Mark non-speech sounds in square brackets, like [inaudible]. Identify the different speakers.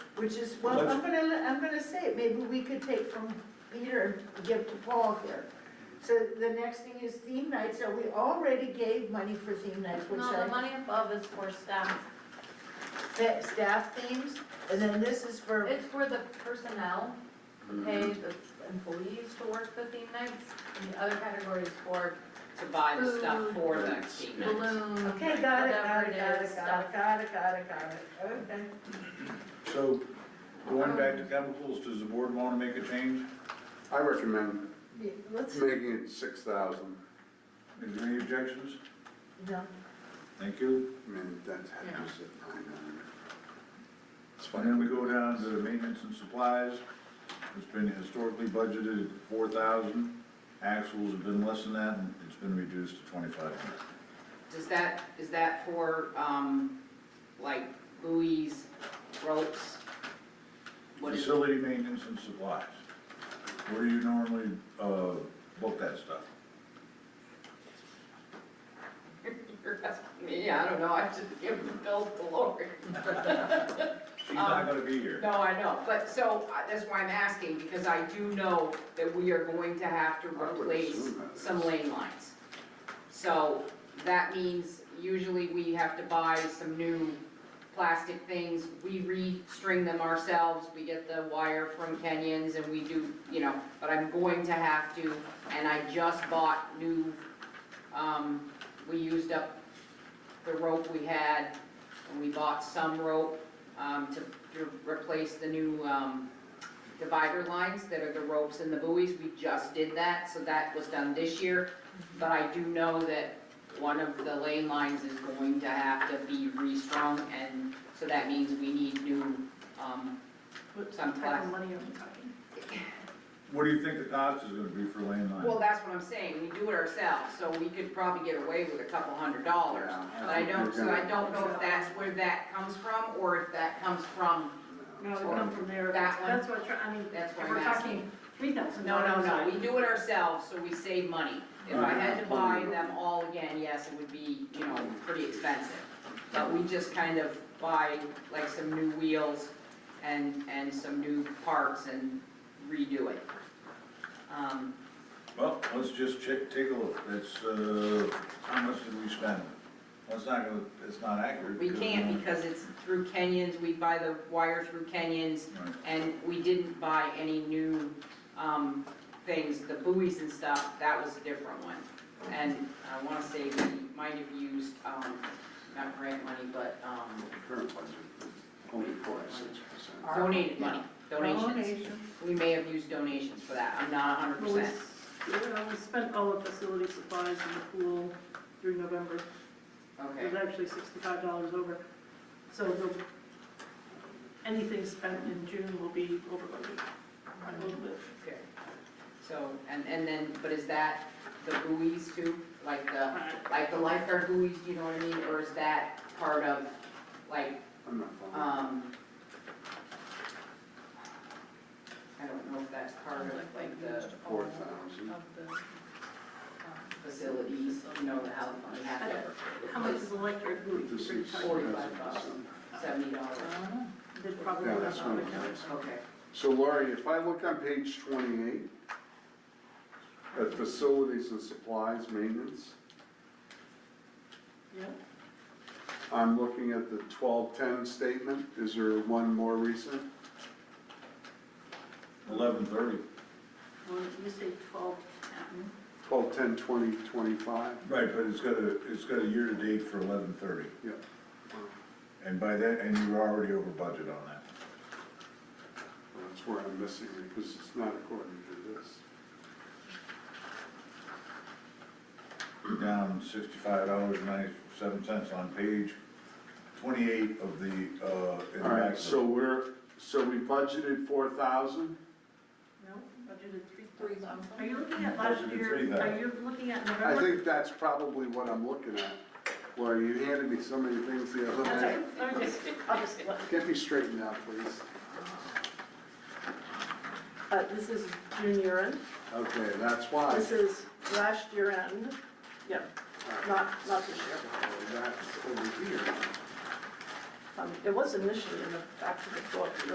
Speaker 1: Which is, well, I'm gonna, let- I'm gonna say it, maybe we could take from Peter and give to Paul here. So the next thing is theme nights, so we already gave money for theme nights, which
Speaker 2: No, the
Speaker 1: I,
Speaker 2: money above is for staff.
Speaker 1: fa- staff themes, and then this is for,
Speaker 2: It's for the personnel,
Speaker 1: Mm-hmm.
Speaker 2: who pay the employees to work the theme nights, and the other category is for
Speaker 3: to buy the stuff for the team nights.
Speaker 2: balloons,
Speaker 1: okay, got it, got
Speaker 2: whatever
Speaker 1: it,
Speaker 2: it
Speaker 1: got
Speaker 2: is,
Speaker 1: it, got
Speaker 2: stuff.
Speaker 1: it, got it, got it, got it, okay.
Speaker 4: So, going back to chemicals, does the board want to make a change?
Speaker 5: I recommend
Speaker 1: Yeah, Let's,
Speaker 5: making it six thousand,
Speaker 4: Is there any objections?
Speaker 1: no,
Speaker 4: Thank you.
Speaker 5: I mean, that's happens at nine hundred. It's
Speaker 4: And then we
Speaker 5: fine,
Speaker 4: go down to maintenance and supplies. It's been historically budgeted at four thousand. Actuals have been less than that, and it's been reduced to twenty-five hundred.
Speaker 3: Does that, is that for, um, like buoys, ropes? What is,
Speaker 4: Facility maintenance and supplies. Where do you normally, uh, book that stuff?
Speaker 3: [laughs] you're asking me, I don't know, I have to give the bill to Lori.
Speaker 4: She's not gonna be here.
Speaker 3: No, I know, but so, uh, that's why I'm asking, because I do know that we are going to have to
Speaker 5: I would
Speaker 3: replace
Speaker 5: assume that
Speaker 3: some
Speaker 5: is.
Speaker 3: lane lines. So that means usually we have to buy some new plastic things, we restring them ourselves, we get the wire from Kenyans and we do, you know, but I'm going to have to, and I just bought new, um, we used up the rope we had, and we bought some rope, um, to, to replace the new, um, divider lines that are the ropes and the buoys, we just did that, so that was done this year. But I do know that one of the lane lines is going to have to be restrung, and so that means we need new, um, some plastic.
Speaker 4: What do you think the cost is gonna be for lane line?
Speaker 3: Well, that's what I'm saying, we do it ourselves, so we could probably get away with a couple hundred dollars. But I don't, so I don't know if that's where that comes from, or if that comes from,
Speaker 6: No, it come from there,
Speaker 3: That one?
Speaker 6: that's what, I mean,
Speaker 3: That's what
Speaker 6: we're
Speaker 3: I'm
Speaker 6: talking three thousand
Speaker 3: no, no,
Speaker 6: dollars.
Speaker 3: no, we do it ourselves, so we save money. If I had to buy them all again, yes, it would be, you know, pretty expensive. But we just kind of buy like some new wheels and, and some new parts and redo it. Um,
Speaker 4: Well, let's just check, take a look, that's, uh, how much did we spend? Well, it's not gonna, it's not accurate.
Speaker 3: We
Speaker 4: because,
Speaker 3: can't
Speaker 4: uh,
Speaker 3: because it's through Kenyans, we buy the wire through Kenyans,
Speaker 4: Right.
Speaker 3: and we didn't buy any new, um, things, the buoys and stuff, that was a different one. And I wanna say we might have used, um, not grant money, but, um,
Speaker 5: current budget, only forty-six percent.
Speaker 3: donated money, donations.
Speaker 1: Donations.
Speaker 3: We may have used donations for that, I'm not a hundred
Speaker 6: Well, we
Speaker 3: percent.
Speaker 6: s- yeah, we spent all the facility supplies in the pool through November, it
Speaker 3: Okay,
Speaker 6: was actually sixty-five dollars over. So the, anything spent in June will be over budget, by a little bit.
Speaker 3: okay. So, and, and then, but is that the buoys too, like the?
Speaker 6: Alright,
Speaker 3: like the lifeguard buoys, you know what I mean, or is that part of, like,
Speaker 5: I'm not following.
Speaker 3: um, I don't know if that's part of, like, the
Speaker 5: Four thousand,
Speaker 2: um,
Speaker 3: facilities, you know, the health, we have to
Speaker 6: How much is electric buoy?
Speaker 5: this is
Speaker 3: Forty-five thousand. seventy dollars.
Speaker 6: Uh-huh. They probably
Speaker 5: Yeah,
Speaker 6: have
Speaker 5: that's
Speaker 6: on
Speaker 5: one
Speaker 6: account.
Speaker 3: Okay,
Speaker 5: So Laurie, if I look on page twenty-eight, at facilities and supplies maintenance,
Speaker 6: Yeah,
Speaker 5: I'm looking at the twelve-ten statement, is there one more recent?
Speaker 4: Eleven thirty.
Speaker 6: well, you say twelve, ten.
Speaker 5: Twelve-ten, twenty, twenty-five?
Speaker 4: Right, but it's got a, it's got a year-to-date for eleven thirty,
Speaker 5: Yeah.
Speaker 4: and by that, and you were already over budget on that.
Speaker 5: That's where I'm missing it, because it's not according to this.
Speaker 4: You're down sixty-five dollars and ninety-seven cents on page twenty-eight of the, uh. in the back
Speaker 5: All
Speaker 4: of
Speaker 5: right,
Speaker 4: the-
Speaker 5: so we're, so we budgeted four thousand?
Speaker 6: No, budgeted three thousand. Are you looking at last
Speaker 4: Budgeted
Speaker 6: year,
Speaker 4: three thousand.
Speaker 6: are you looking at
Speaker 5: I
Speaker 6: November?
Speaker 5: think that's probably what I'm looking at, Well, you handed me so many things the other
Speaker 6: That's
Speaker 5: day.
Speaker 6: right, let me just, I'll just look.
Speaker 5: Get me straightened out, please.
Speaker 6: Uh, this is junior end,
Speaker 5: Okay, that's why.
Speaker 6: this is last year end, yeah, not, not this year.
Speaker 5: That's over here.
Speaker 6: Um, it was initially in the back of the book,